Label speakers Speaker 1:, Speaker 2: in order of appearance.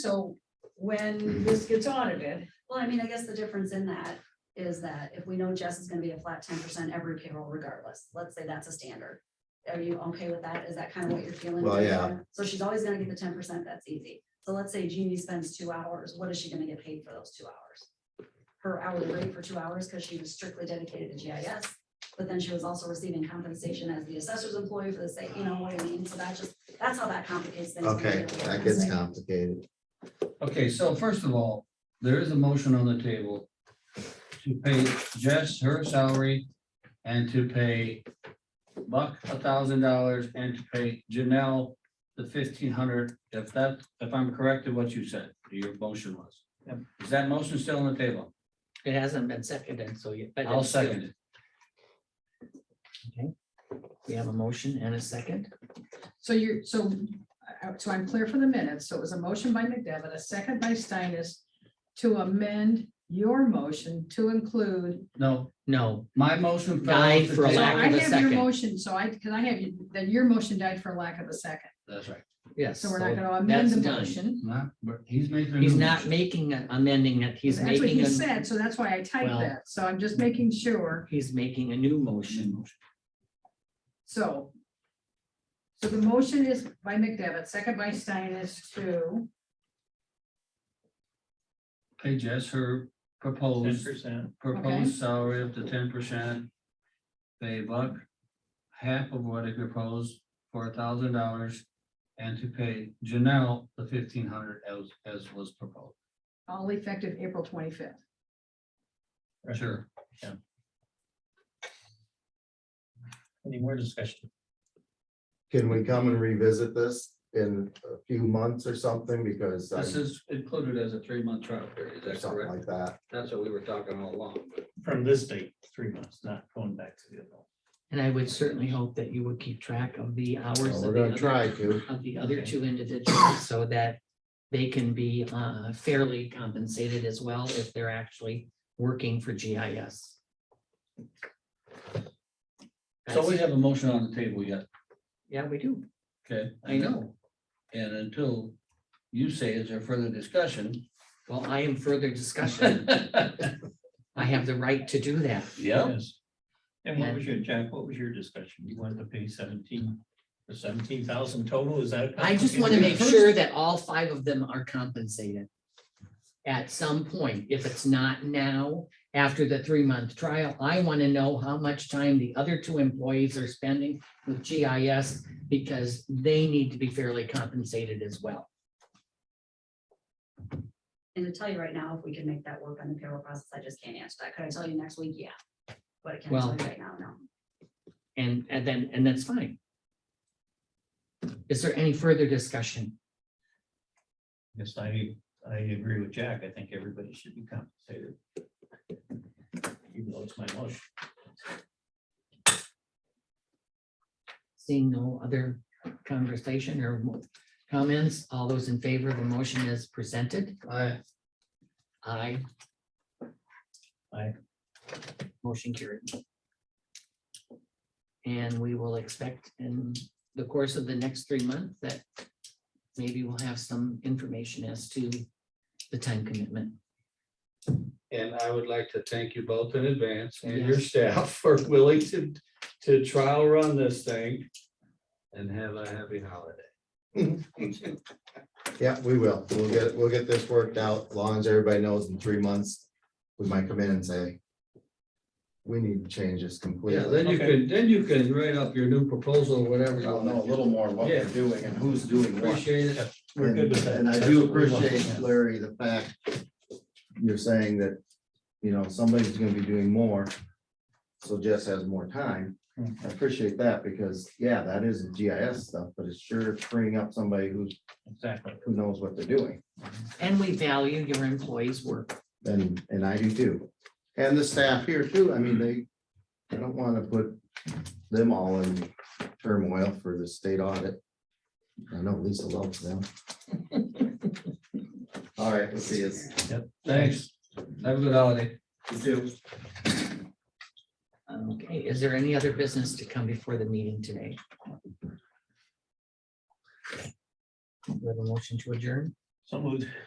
Speaker 1: so when this gets audited,
Speaker 2: Well, I mean, I guess the difference in that is that if we know Jess is gonna be a flat ten percent every payroll regardless, let's say that's a standard. Are you okay with that? Is that kind of what you're feeling?
Speaker 3: Well,
Speaker 2: right
Speaker 3: yeah.
Speaker 2: now? So she's always gonna get the ten percent, that's easy. So let's say Jeannie spends two hours, what is she gonna get paid for those two hours? Her hourly rate for two hours, because she was strictly dedicated to GIS, but then she was also receiving compensation as the assessor's employee for the sake, you know what I mean? So that just, that's how that complicates things. when you
Speaker 3: Okay,
Speaker 2: get to
Speaker 3: that
Speaker 2: the
Speaker 3: gets
Speaker 2: compensation.
Speaker 3: complicated.
Speaker 4: Okay, so first of all, there is a motion on the table to pay Jess her salary and to pay Buck a thousand dollars and to pay Janelle the fifteen hundred, if that, if I'm correct in what you said, your motion was.
Speaker 5: Yep.
Speaker 4: Is that motion still on the table?
Speaker 5: It hasn't been seconded, so you. but
Speaker 4: I'll
Speaker 5: it's still-
Speaker 4: second it.
Speaker 5: We have a motion and a second.
Speaker 1: so you're, so, I- so I'm clear for the minutes, so it was a motion by McDevitt, a second by Steinis to amend your motion to include.
Speaker 4: No,
Speaker 5: No,
Speaker 4: my motion. fell
Speaker 5: Died
Speaker 4: off the
Speaker 5: for a
Speaker 1: So
Speaker 4: table.
Speaker 5: lack
Speaker 1: I
Speaker 5: of a
Speaker 1: have your
Speaker 5: second.
Speaker 1: motion, so I, because I have, you- then your motion died for lack of a second,
Speaker 4: That's right.
Speaker 5: yes.
Speaker 1: so we're not gonna amend
Speaker 5: that's
Speaker 1: the
Speaker 5: done.
Speaker 1: motion.
Speaker 4: Not, but he's making. a
Speaker 5: He's
Speaker 4: new
Speaker 5: not
Speaker 4: motion.
Speaker 5: making, a- amending it, he's
Speaker 1: That's what
Speaker 5: making,
Speaker 1: he
Speaker 5: a-
Speaker 1: said, so that's why I typed
Speaker 5: Well-
Speaker 1: that, so I'm just making sure,
Speaker 5: he's making a new motion.
Speaker 1: so. So the motion is by McDevitt, second by Steinis to,
Speaker 4: Pay Jess her proposed
Speaker 5: percent.
Speaker 4: proposed salary up to ten percent. Pay Buck half of what he proposed for a thousand dollars and to pay Janelle the fifteen hundred as, as was proposed.
Speaker 1: all effective April twenty-fifth.
Speaker 4: Sure.
Speaker 5: Any more discussion?
Speaker 3: Can we come and revisit this in a few months or something because I'm-
Speaker 4: This is included as a three-month trial period,
Speaker 3: or
Speaker 4: is that
Speaker 3: something like
Speaker 4: correct?
Speaker 3: that?
Speaker 4: That's what we were talking all along.
Speaker 6: from this date, three months, not going back to the other. one.
Speaker 5: And I would certainly hope that you would keep track of the hours.
Speaker 3: Well,
Speaker 5: of
Speaker 3: We're
Speaker 5: the
Speaker 3: gonna
Speaker 5: other-
Speaker 3: try to.
Speaker 5: Of the other two individuals so that they can be uh, fairly compensated as well if they're actually working for GIS.
Speaker 4: So we have a motion on the table yet,
Speaker 5: Yeah, we do.
Speaker 4: okay?
Speaker 5: I know.
Speaker 4: And until you say is there further discussion?
Speaker 5: Well, I am further discussion. I have the right to do that.
Speaker 4: Yeah,
Speaker 6: Yes. And what was your, Jack, what was your discussion? You wanted to pay seventeen, for seventeen thousand total, is that?
Speaker 5: I just want to make sure that all five of them are compensated. At some point, if it's not now, after the three-month trial, I want to know how much time the other two employees are spending with GIS because they need to be fairly compensated as well.
Speaker 2: And to tell you right now, if we can make that work on the payroll process, I just can't answer that. Could I tell you next week? Yeah. But I can't tell
Speaker 5: Well-
Speaker 2: you right now, no.
Speaker 5: And, and then, and that's fine. Is there any further discussion?
Speaker 6: Yes, I, I agree with Jack. I think everybody should be compensated. Even though it's my motion.
Speaker 5: Seeing no other conversation or comments, all those in favor of the motion as presented?
Speaker 4: I,
Speaker 5: Aye.
Speaker 6: Aye.
Speaker 5: Motion carried. And we will expect in the course of the next three months that maybe we'll have some information as to the time commitment.
Speaker 4: And I would like to thank you both in advance and your staff for willing to, to trial run this thing. And have a happy holiday.
Speaker 3: Yeah, we will. We'll get, we'll get this worked out. As long as everybody knows in three months, we might come in and say, we need to change this
Speaker 4: Yeah,
Speaker 3: completely.
Speaker 4: then you can, then you can write up your new proposal, or whatever. you
Speaker 7: I'll
Speaker 4: want.
Speaker 7: know a little more what we're doing and who's doing what.
Speaker 4: Appreciate it.
Speaker 6: We're good with that.
Speaker 3: And I
Speaker 6: That's
Speaker 3: do
Speaker 6: what we want,
Speaker 3: appreciate,
Speaker 6: yeah.
Speaker 3: Larry, the fact you're saying that, you know, somebody's gonna be doing more. So Jess has more time. I appreciate that because, yeah, that is GIS stuff, but it's sure freeing up somebody who's,
Speaker 6: Exactly.
Speaker 3: who knows what they're doing.
Speaker 5: And we value your employees' work.
Speaker 3: And, and I do too. And the staff here too. I mean, they, I don't want to put them all in turmoil for the state audit. I know Lisa loves them. All right, let's see, it's
Speaker 4: Thanks. Have a good holiday.
Speaker 5: Okay, is there any other business to come before the meeting today? We have a motion to adjourn.
Speaker 6: So So moved.